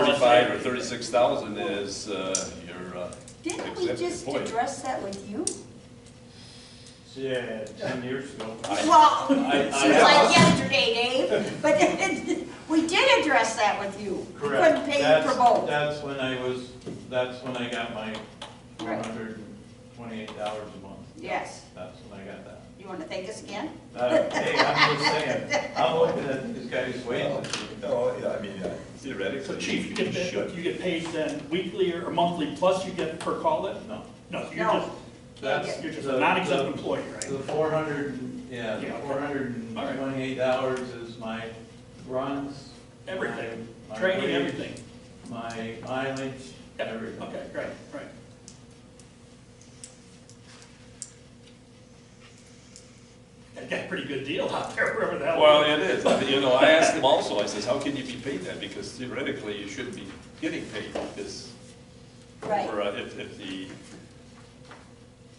thirty-five or thirty-six thousand is, uh, your, uh, Didn't we Except just the point. address that with you? Yeah, ten years ago. Well, I- it seems like yesterday, Dave, but it- we did address that with you. We Correct. couldn't pay That's- for both. That's when I was, that's when I got my four Right. hundred and twenty-eight dollars a month. Yes. That's when I got that. You want to thank us again? Uh, Hey, I'm just saying, I'm looking at these guys' wages. no, yeah, I mean, uh, theoretically. So chief, you you get, paid- should. you get paid then weekly or monthly, plus you get per call it? No. No, you're No. just, That's- you're just the- a non-exempt the- employee, right? The four hundred, yeah, the Yeah, okay. four hundred and twenty-eight dollars is my runs. Everything, my- my training, wage, everything. My mileage, Yep. everything. Okay, right, right. That got a pretty good deal out there, wherever that Well, was. it is, I mean, you know, I asked him also, I says, how can you be paid that? Because theoretically, you shouldn't be getting paid this, Right. or uh, if, if the,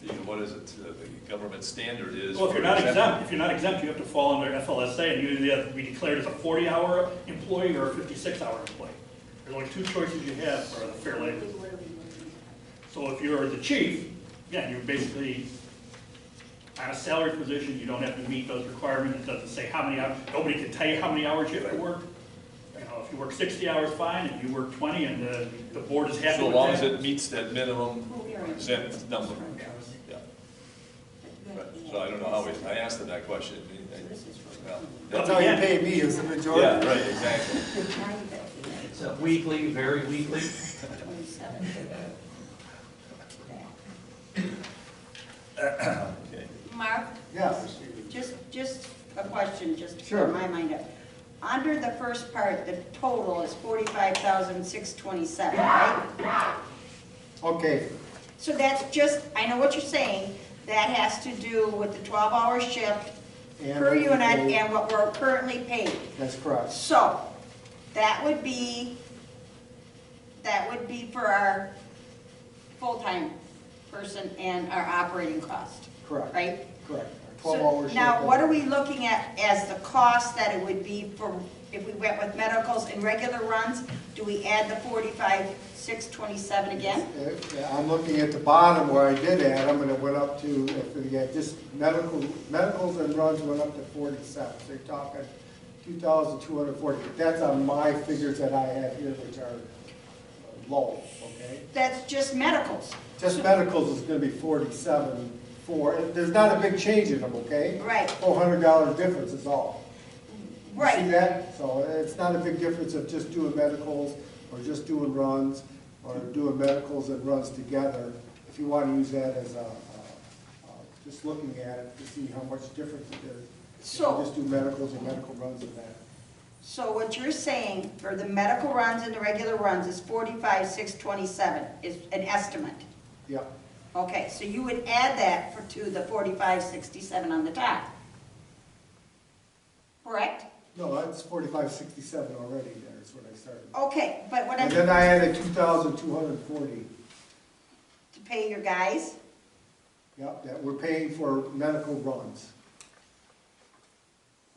the, what is it, uh, the government standard is. Well, if for you're not exempt, if you're not exempt, you have to fall under FLSA, and you either have to be declared as a forty-hour employee or a fifty-six-hour employee. There's only two choices you have for the fair labor. So if you're the chief, yeah, you're basically on a salary position, you don't have to meet those requirements, it doesn't say how many hours, nobody can tell you how many hours you have to work. You know, if you work sixty hours, fine, if you work twenty, and the, the board is happy So with long as it that. meets that minimum exempt number, yeah. But- So I don't know how we, I asked him that question. and he- well, That's how you pay me, is the Yeah, majority. right, exactly. It's a weekly, very weekly. Okay. Mark, Yes. just, just a question, just to Sure. clear my mind up. Under the first part, the total is forty-five thousand, six twenty-seven, right? Okay, So that's just, I know what you're saying, that has to do with the twelve-hour shift And per what we unit pay. and what we're currently paid. that's correct. So, that would be, that would be for our full-time person and our operating cost. Correct. Right? Correct. Our So Twelve hours. Now, what are we looking at as the cost that it would be for, if we went with medicals and regular runs? Do we add the forty-five, six twenty-seven again? I'm looking at the bottom where I did add them, and it went up to, if we had just medical, medicals and runs went up to forty-seven. So you're talking two thousand two hundred forty. That's on my figures that I have here, which are low, okay? That's just medicals, Just medicals is gonna be forty-seven, four, there's not a big change in them, okay? Right. Four hundred dollar difference is all. You right? See that? So it's not a big difference of just doing medicals, or just doing runs, or doing medicals and runs together. If you wanna use that as a, uh, uh, just looking at it to see how much difference it is. If you So- Just do medicals and medical runs and that. So what you're saying for the medical runs and the regular runs is forty-five, six twenty-seven is an estimate. Yeah, Okay, so you would add that for, to the forty-five, sixty-seven on the top. Correct? no, that's forty-five sixty-seven already there is what I started. Okay, Oh, but what I'm, And to then I added two thousand two hundred forty. pay your guys, Yep, that we're paying for medical runs.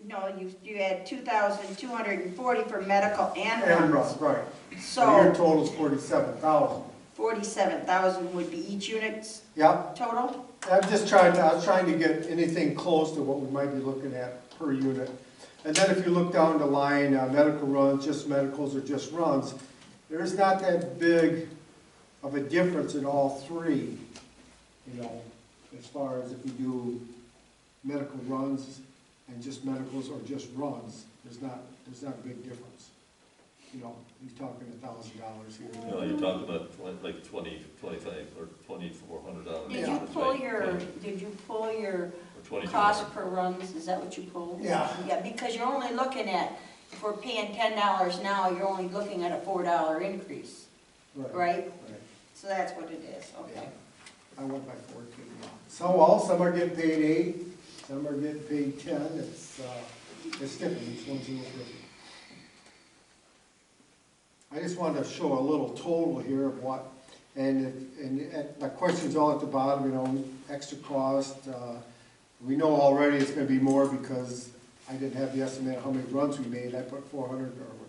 no, you, you had two thousand two hundred and forty for medical and And runs. runs, right. So your So total's forty-seven thousand. forty-seven thousand would be each unit's Yep, total? I'm just trying to, I was trying to get anything close to what we might be looking at per unit. And then if you look down the line, uh, medical runs, just medicals or just runs, there's not that big of a difference in all three, you know, as far as if you do medical runs and just medicals or just runs, there's not, there's not a big difference. You know, you're talking a thousand dollars here. You know, you're talking about twen- like twenty, twenty-five, or twenty-four hundred dollars. Did you pull your, did you pull your Or twenty-two Cost hundred. per runs, is that what you pulled? Yeah. Yeah, because you're only looking at, if we're paying ten dollars now, you're only looking at a four dollar increase, right? Right. So that's what it is, okay. I went by fourteen, yeah. So, well, some are getting paid eight, some are getting paid ten, it's, uh, it's different, each one's a little different. I just wanted to show a little total here of what, and, if- and, and my question's all at the bottom, you know, extra cost, uh, we know already it's gonna be more because I Uh, didn't have the estimate of how many runs we made, I put four hundred or